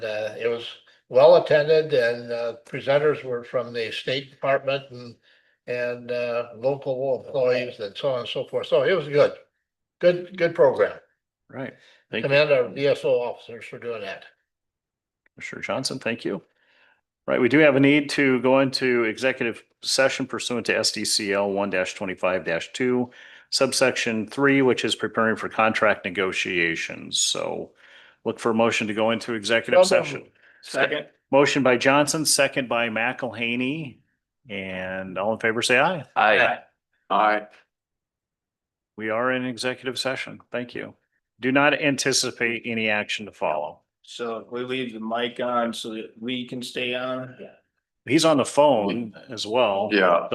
Uh, it was well attended and uh, presenters were from the State Department and and uh, local employees and so on and so forth. So it was good. Good, good program. Right. Thank you, Commend our DSO officers for doing that. Commissioner Johnson. Thank you. Right, we do have a need to go into executive session pursuant to SDCL one twenty-five two subsection three, which is preparing for contract negotiations. So look for a motion to go into executive So moved. session. Second. Motion by Johnson, second by McElhaney. And all in favor, say aye. Aye. Aye. We are in executive session. Thank you. Do not anticipate any action to follow. So if we leave the mic on so that we can stay on. He's on the phone as well. Yeah.